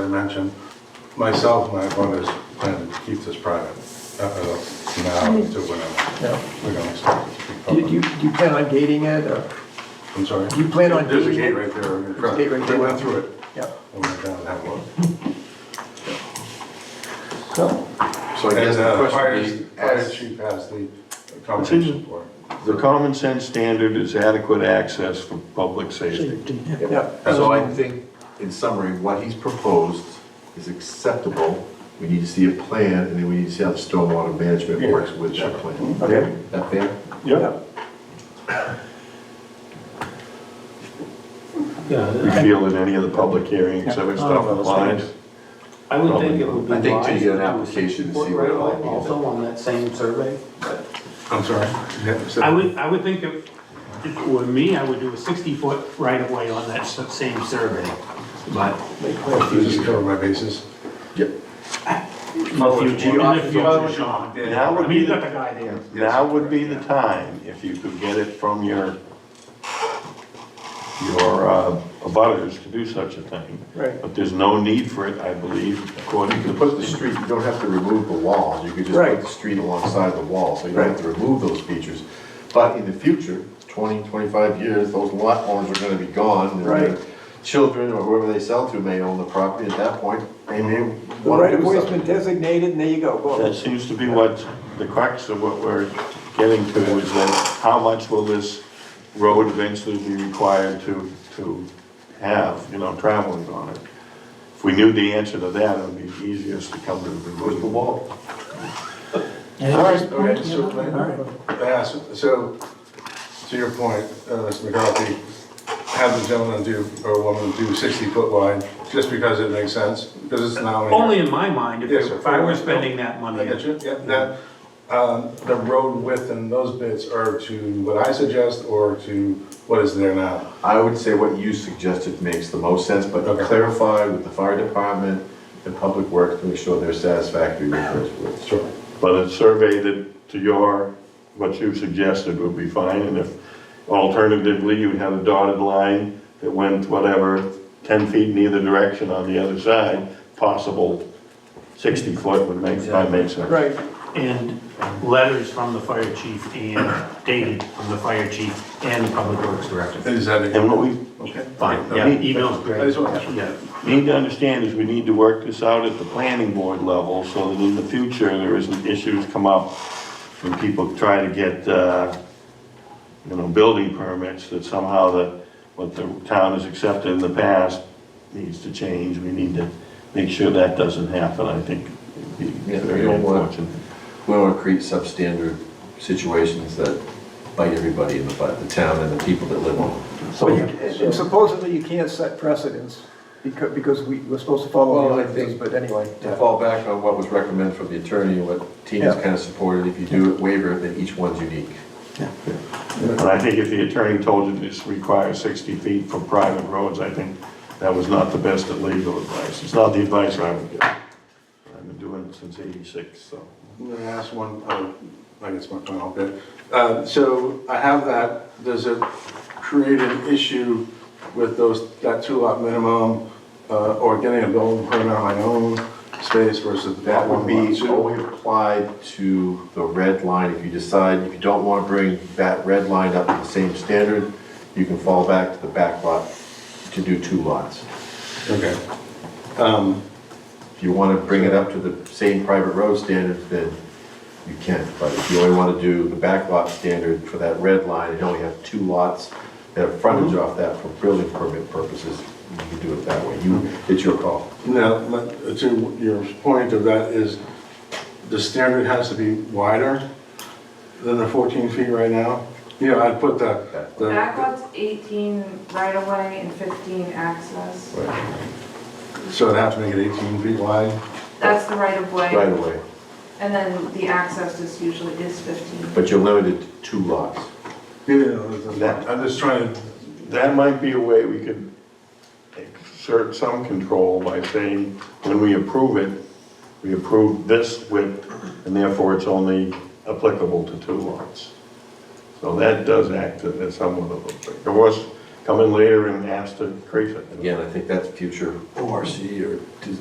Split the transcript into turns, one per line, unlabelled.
I mentioned, myself, my brother's planning to keep this private, uh, uh, now to whenever.
No.
We don't expect it to be
You, you,
public.
you plan on gating it, or,
I'm sorry?
you plan on
There's a
doing it?
gate right there. in front.
Gate right
They
there.
went through it.
yeah,
I went down and had a look.
so,
So I
And,
guess the
uh,
question
fire,
is,
fire
as
chief has the accommodation for it.
The common sense standard is adequate access for public safety.
yeah.
So I think, in summary, what he's proposed is acceptable. We need to see a plan, and then we need to see how the stormwater management works with that plan.
Okay,
That fair?
Yeah, we
Yeah,
feel in any of the public hearings, other stuff applies.
I would think it would be
I think till you get an
wise
application to
put
see what it
Rail
might be.
Also on that same survey, but
I'm sorry? Yeah, so-
I would, I would think if, if it were me, I would do a sixty-foot right-of-way on that s- same survey. But
make clear.
You just cover my bases?
in the
Oh,
future, in the future, Sean,
Now
I
would
mean,
be
you got the
the,
guy there.
now would be the time, if you could get it from your, your uh, abutters to do such a thing.
Right.
But there's no need for it, I believe, according
You
to
can
the
put the street, you don't have to remove the walls, you could just put
Right.
the street alongside the wall, so you don't have to remove those features. But in the future, 20, 25 years, those lot owners are gonna be gone. and their
Right.
Children or whoever they sell to may own the property at that point, and they
The
wanna
right
do
of way's been
something.
designated, and there you go,
That
boom.
seems to be what, the crux of what we're getting to is that how much will this road eventually be required to, to have, you know, traveling on it? If we knew the answer to that, it would be easiest to come to the
With the
conclusion.
wall.
Okay, so, Yes, Uh, so, to your point, uh, Mr. McCarthy, have the gentleman do, or woman do sixty-foot wide, just because it makes sense, because it's now. an-
Only in my mind, if,
Yes, sir.
if I were spending that
I
money.
get you, yeah, that, um, the road width and those bits are to what I suggest, or to what is there now?
I would say what you suggested makes the most sense, but
Okay.
clarify with the fire department and public works to make sure they're satisfactory with those.
Sure.
But a survey that, to your, what you suggested would be fine, and if alternatively you had a dotted line that went whatever, ten feet in either direction on the other side, possible sixty foot would make, might make sense.
Right,
And letters from the fire chief and dated from the fire chief and public works director.
Is that it?
And what we
Okay.
Fine, yeah, email's
I
great,
just want-
yeah.
need to understand is we need to work this out at the planning board level so that in the future, there isn't issues come up when people try to get, uh, you know, building permits, that somehow the, what the town has accepted in the past needs to change. We need to make sure that doesn't happen, I think. it'd be
Yeah, we
very
don't want-
unfortunate.
We don't want to create substandard situations that bite everybody in the butt, the town and the people that live on.
so you- and supposedly you can't set precedents, because, because we, we're supposed to follow the
Well, I
ordinances,
think-
but anyway.
To fall back on what was recommended from the attorney, and what Tina's
Yeah.
kind of supported, if you do it waiver, then each one's unique.
And I think if the attorney told you this requires 60 feet for private roads, I think that was not the best of legal advice. It's not the advice I would give. I've been doing it since 86, so.
I'm gonna ask one, uh, I guess my final bit. Uh, So I have that, does it create an issue with those, that two lot minimum, uh, or getting a building permit on my own space versus that
That would
one
be
lot two?
only applied to the red line, if you decide, if you don't want to bring that red line up to the same standard, you can fall back to the back lot to do two lots.
Okay. Um,
If you want to bring it up to the same private road standards, then you can. But if you only want to do the back lot standard for that red line, and only have two lots that have frontage off that for building permit purposes, you can do it that way. You, it's your call.
Now, let- to your point of that is, the standard has to be wider than the 14 feet right now? Yeah, I'd put the,
Back
the,
lot's 18 right of way and 15 access.
so it'd have to make it 18 feet wide?
That's the right of
Right
way.
away,
And then the access is usually is 15.
but you're limited to two lots.
Yeah, I'm just trying to
That might be a way we could exert some control by saying, when we approve it, we approve this width, and therefore it's only applicable to two lots. So that does act as somewhat of a, there was a come in later and ask to increase it.
Again, I think that's future ORC or